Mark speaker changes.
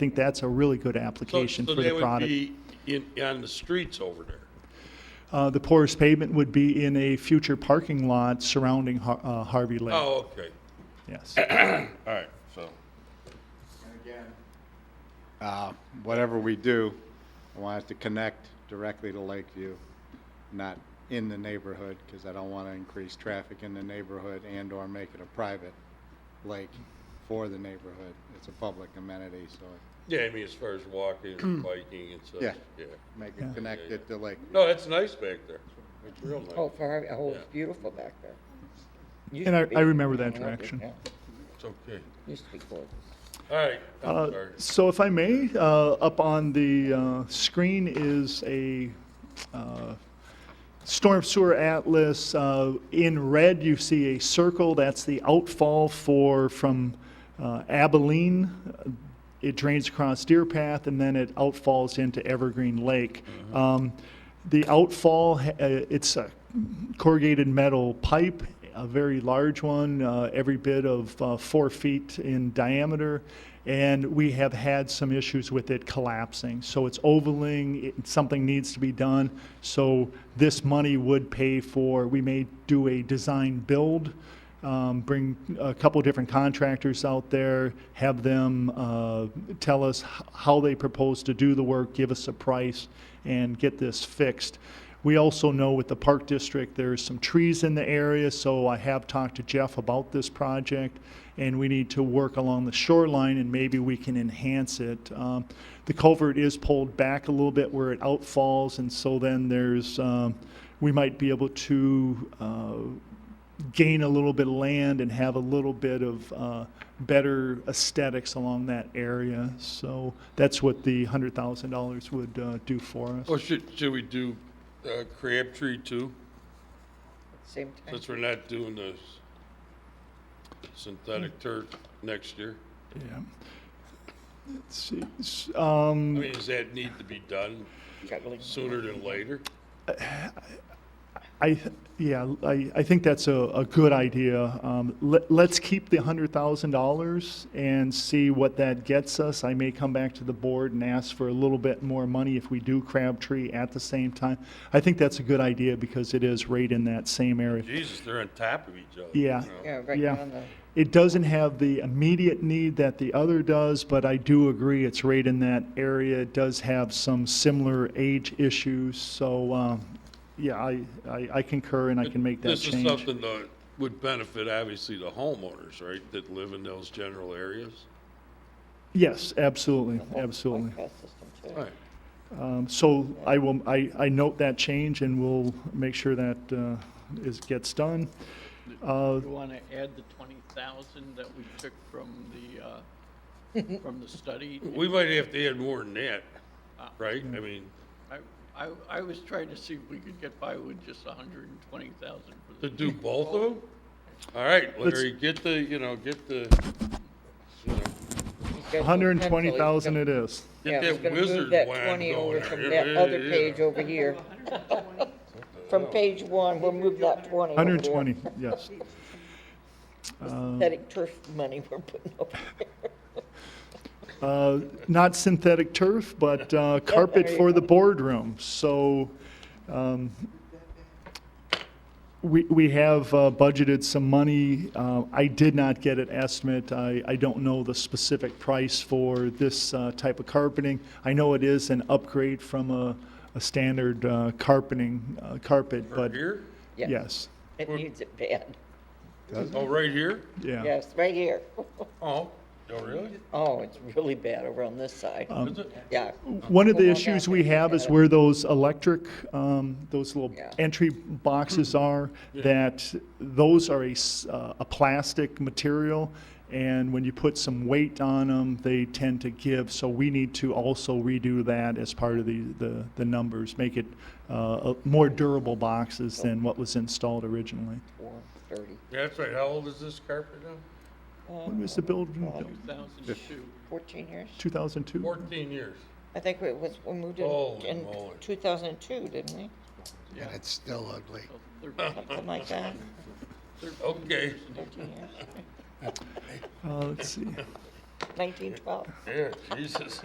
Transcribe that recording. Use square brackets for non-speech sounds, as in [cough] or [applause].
Speaker 1: think that's a really good
Speaker 2: So-
Speaker 1: application for the
Speaker 2: So
Speaker 1: product.
Speaker 2: they would be in, on the streets over there?
Speaker 1: Uh, The porous pavement would be in a future parking lot surrounding Har- uh, Harvey Lake,
Speaker 2: Oh, okay,
Speaker 1: yes.
Speaker 2: all right, so,
Speaker 3: Uh, Whatever we do, I want it to connect directly to Lakeview, not in the neighborhood, because I don't want to increase traffic in the neighborhood and/or make it a private lake for the neighborhood. It's a public amenity, so
Speaker 2: yeah, I mean, as far as walking [clears throat] and biking and such,
Speaker 3: Yeah.
Speaker 2: yeah.
Speaker 3: make it connected to Lakeview.
Speaker 2: No, it's nice back there, it's real nice.
Speaker 4: Oh, for Harvey, oh,
Speaker 2: Yeah.
Speaker 4: it's beautiful back there. Used
Speaker 1: And
Speaker 4: to
Speaker 1: I-
Speaker 4: be.
Speaker 1: I remember that
Speaker 4: loved it,
Speaker 1: interaction.
Speaker 4: yeah.
Speaker 2: It's okay,
Speaker 4: Used to be gorgeous.
Speaker 2: all right,
Speaker 1: Uh,
Speaker 2: I'm sorry.
Speaker 1: So if I may, uh, up on the uh, screen is a uh, storm sewer atlas. Uh, In red, you see a circle, that's the outfall for, from uh, Abilene. It drains across Deer Path, and then it outfalls into Evergreen Lake. Um, The outfall, ha- uh, it's a corrugated metal pipe, a very large one, uh, every bit of uh, four feet in diameter, and we have had some issues with it collapsing. So it's ovaling, it, something needs to be done. So this money would pay for, we may do a design build, um, bring a couple different contractors out there, have them uh, tell us h- how they propose to do the work, give us a price, and get this fixed. We also know with the Park District, there's some trees in the area, so I have talked to Jeff about this project, and we need to work along the shoreline, and maybe we can enhance it. Um, The culvert is pulled back a little bit where it outfalls, and so then there's, um, we might be able to uh, gain a little bit of land and have a little bit of uh, better aesthetics along that area. So that's what the hundred thousand dollars would uh, do for us.
Speaker 2: Well, Oh, should, should we do uh, Crabtree too,
Speaker 4: Same time.
Speaker 2: since we're not doing the s- synthetic turf next year?
Speaker 1: Yeah. Let's see. S-
Speaker 2: I
Speaker 1: Um,
Speaker 2: mean, does that need to be done
Speaker 4: Juggling.
Speaker 2: sooner than later?
Speaker 1: I, yeah, I, I think that's a, a good idea. Um, let, let's keep the hundred thousand dollars and see what that gets us. I may come back to the board and ask for a little bit more money if we do Crabtree at the same time. I think that's a good idea because it is right in that same area.
Speaker 2: Jesus, they're on top of each other.
Speaker 1: Yeah.
Speaker 2: you know?
Speaker 4: Yeah, right
Speaker 1: Yeah.
Speaker 4: down the,
Speaker 1: It doesn't have the immediate need that the other does, but I do agree it's right in that area. It does have some similar age issues, so, um, yeah, I, I I concur and I can make that
Speaker 2: This is
Speaker 1: change.
Speaker 2: something that would benefit, obviously, the homeowners, right, that live in those general areas?
Speaker 1: Yes, absolutely, absolutely.
Speaker 4: like that system too.
Speaker 2: Right.
Speaker 1: Um, So I will, I, I note that change and we'll make sure that uh, is, gets done. Uh,
Speaker 5: You want to add the twenty thousand that we took from the, uh, from the study?
Speaker 2: We might have to add more than that, right? I mean,
Speaker 5: I, I, I was trying to see if we could get by with just a hundred and twenty thousand for
Speaker 2: to
Speaker 5: the.
Speaker 2: do both of them? All right, Larry, get the, you know, get the, you know,
Speaker 4: He's got the pencil,
Speaker 1: 120,000
Speaker 4: he's
Speaker 1: it is.
Speaker 4: gonna-
Speaker 2: Get that
Speaker 4: Yeah, he's gonna move
Speaker 2: wizard
Speaker 4: that
Speaker 2: wand
Speaker 4: twenty
Speaker 2: going
Speaker 4: over
Speaker 2: there.
Speaker 4: from
Speaker 2: Yeah,
Speaker 4: that other
Speaker 2: yeah, yeah.
Speaker 4: page over here.
Speaker 2: [laughs]
Speaker 4: From page one, we'll move that twenty over there.
Speaker 1: 120, yes.
Speaker 4: Pathetic turf money we're putting over
Speaker 1: [laughs]
Speaker 4: there.
Speaker 1: Uh, Not synthetic turf, but uh, carpet for the boardroom. So um, we we have uh, budgeted some money. Uh, I did not get an estimate. I I don't know the specific price for this uh, type of carpeting. I know it is an upgrade from a a standard uh, carpeting, uh, carpet,
Speaker 2: or
Speaker 1: but
Speaker 2: here?
Speaker 4: Yeah,
Speaker 1: yes,
Speaker 4: It needs it bad.
Speaker 2: Oh, right here?
Speaker 1: yeah.
Speaker 4: Yes, right here. [laughs]
Speaker 2: Oh, oh, really?
Speaker 4: Oh, it's really bad over on this side.
Speaker 1: Uh. Um,
Speaker 2: Is it?
Speaker 4: Yeah.
Speaker 1: One of the
Speaker 4: Come on
Speaker 1: issues
Speaker 4: down
Speaker 1: we
Speaker 4: there.
Speaker 1: have is where those electric, um, those little
Speaker 4: Yeah. Hmm.
Speaker 1: entry boxes are, that those are a, s- uh, a plastic material, and when you put some weight on them, they tend to give, so we need to also redo that as part of the, the, the numbers, make it, uh, a- more durable boxes than what was installed originally.
Speaker 4: Four thirty.
Speaker 2: Yeah, That's right, how old is this carpet now?
Speaker 1: When was the build,
Speaker 5: Two thousand two.
Speaker 4: Fourteen years?
Speaker 1: two thousand two?
Speaker 2: Fourteen years.
Speaker 4: I think it was, we moved
Speaker 2: Holy
Speaker 4: it in
Speaker 2: moly.
Speaker 4: two thousand and two, didn't we?
Speaker 6: And it's still ugly.
Speaker 5: so thir-
Speaker 4: Something like that,
Speaker 2: Okay.
Speaker 4: thirteen years. [laughs]
Speaker 1: Uh, let's see.
Speaker 4: 1912.
Speaker 2: Yeah, Jesus.